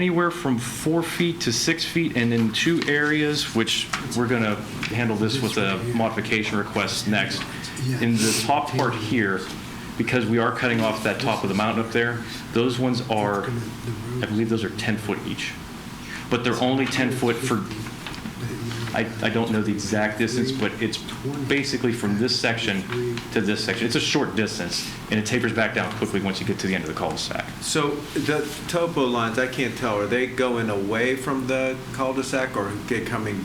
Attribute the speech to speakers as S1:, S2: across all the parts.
S1: anywhere from four feet to six feet, and in two areas, which we're going to handle this with a modification request next. In the top part here, because we are cutting off that top of the mountain up there, those ones are, I believe those are 10 foot each. But they're only 10 foot for, I, I don't know the exact distance, but it's basically from this section to this section. It's a short distance, and it tapers back down quickly once you get to the end of the cul-de-sac.
S2: So the topo lines, I can't tell, are they going away from the cul-de-sac or they coming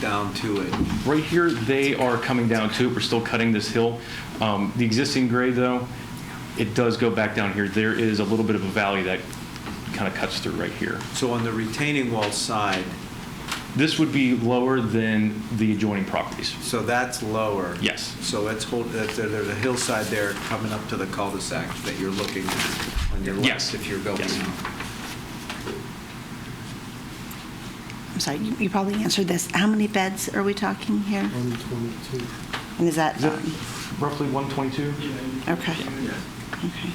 S2: down to it?
S1: Right here, they are coming down too. We're still cutting this hill. Um, The existing grade, though, it does go back down here. There is a little bit of a valley that kind of cuts through right here.
S2: So on the retaining wall side,
S1: This would be lower than the adjoining properties.
S2: so that's lower?
S1: Yes.
S2: So it's hold, that's- there- there's a hillside there coming up to the cul-de-sac that you're looking on your
S1: Yes.
S2: left if you're going.
S1: Yes.
S2: out.
S3: I'm sorry, you you probably answered this. How many beds are we talking here?
S4: 122.
S3: And is that,
S1: Is that
S3: um,
S1: roughly 122?
S3: okay, okay.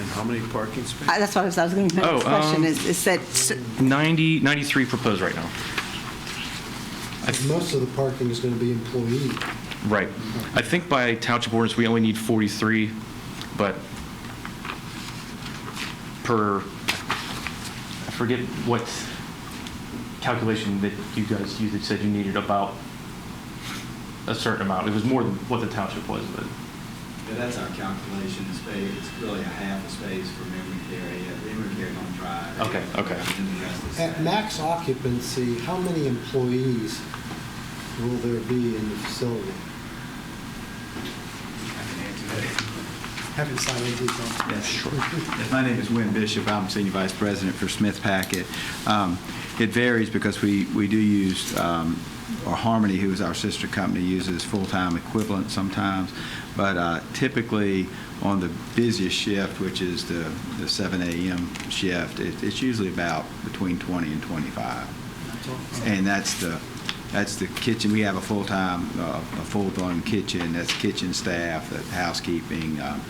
S2: And how many parking spaces?
S3: I- That's what I was, I was going to, my next
S1: Oh,
S3: question
S1: um,
S3: is, is that, s-
S1: 90, 93 proposed right now.
S4: Most of the parking is going to be employee.
S1: Right. I think by township ordinance, we only need 43, but per, I forget what calculation that you guys used, it said you needed about a certain amount. It was more than what the township was, but,
S5: Yeah, that's our calculation, it's ba- it's really a half a space for memory care, yeah, memory care don't drive.
S1: Okay, okay.
S5: And then the rest is.
S4: At max occupancy, how many employees will there be in the facility?
S5: I can answer that.
S4: Haven't signed anything.
S5: Yes, sure. My name is Win Bishop, I'm Senior Vice President for Smith Packet. Um, It varies because we, we do use, um, or Harmony, who is our sister company, uses full-time equivalent sometimes, but uh, typically on the busiest shift, which is the the 7 a.m. shift, it- it's usually about between 20 and 25. And that's the, that's the kitchen, we have a full-time, uh, a full-blown kitchen, that's kitchen staff, that housekeeping, um,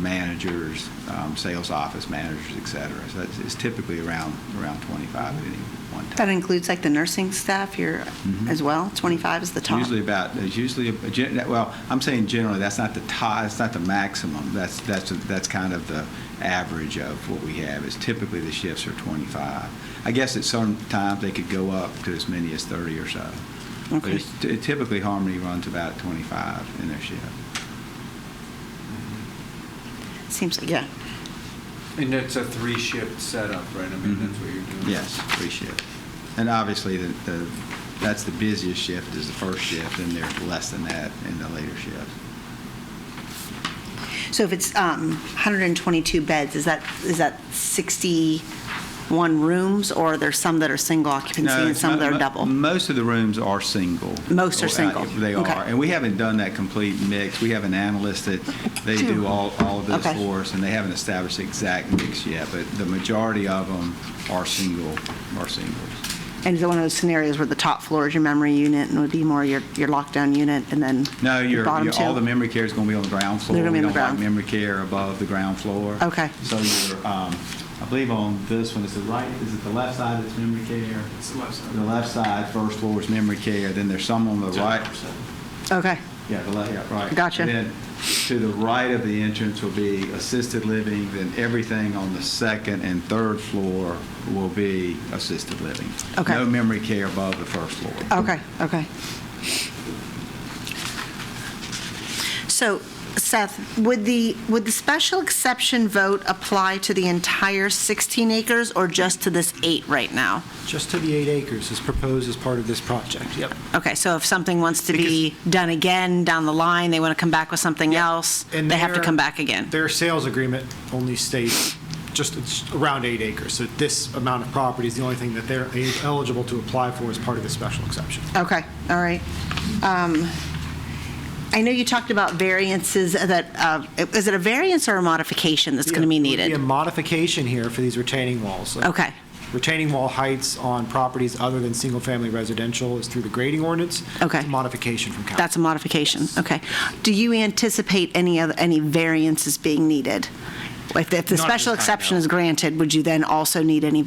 S5: managers, um, sales office managers, et cetera. So that's- it's typically around, around 25 at any one time.
S3: that includes like the nursing staff here
S5: Mhm.
S3: as well? 25 is the
S5: It's
S3: top?
S5: Usually about, it's usually, a- gen- well, I'm saying generally, that's not the top, that's not the maximum. That's, that's, that's kind of the average of what we have, is typically the shifts are 25. I guess at some times, they could go up to as many as 30 or so. But
S3: Okay.
S5: it's- t- typically, Harmony runs about 25 in their shift.
S3: Seems, like yeah.
S2: And it's a three-shift setup, right? I mean, that's what you're doing.
S5: Yes, three shifts. And obviously, the, the- that's the busiest shift is the first shift, and they're less than that in the later shifts.
S3: So if it's um, 122 beds, is that, is that 61 rooms? Or are there some that are single occupancy
S5: No,
S3: and
S5: it's
S3: some
S5: mo-
S3: that are
S5: mo-
S3: double?
S5: Most of the rooms are single.
S3: Most are
S5: Uh,
S3: single.
S5: They
S3: Okay.
S5: are, and we haven't done that complete mix. We have an analyst that, they do all, all of this
S3: Okay.
S5: for us, and they haven't established the exact mix yet, but the majority of them are single, are singles.
S3: And is it one of those scenarios where the top floor is your memory unit and would be more your, your lockdown unit and then?
S5: No,
S3: the
S5: your,
S3: bottom
S5: your- all
S3: two?
S5: the memory care is going to be on the ground floor.
S3: They're gonna be on the ground.
S5: We don't like memory care above the ground floor.
S3: Okay.
S5: So your, um, I believe on this one, is it right, is it the left side that's memory care? It's the left side. The left side, first floor is memory care, then there's some on the right.
S3: Okay,
S5: Yeah, the left, yeah, right.
S3: Gotcha.
S5: And then to the right of the entrance will be assisted living, then everything on the second and third floor will be assisted living.
S3: Okay.
S5: No memory care above the first floor.
S3: okay, okay. So Seth, would the, would the special exception vote apply to the entire 16 acres or just to this eight right now?
S6: Just to the eight acres is proposed as part of this project, yep.
S3: Okay, so if something wants to be done again down the line, they want to come back with something else,
S6: And
S3: they have to
S6: their-
S3: come back again?
S6: Their sales agreement only states just it's around eight acres, so this amount of property is the only thing that they're eligible to apply for as part of the special exception.
S3: Okay, all right. Um, I know you talked about variances that, uh, is it a variance or a modification that's going to be
S6: Would a
S3: needed?
S6: modification here for these retaining walls.
S3: Okay.
S6: Retaining wall heights on properties other than single-family residential is through the grading ordinance.
S3: Okay.
S6: It's a modification from council.
S3: That's a modification, okay. Do you anticipate any other, any variances being needed? If the- if the
S6: Not at this
S3: special
S6: time,
S3: exception
S6: no.
S3: is granted, would you then also need any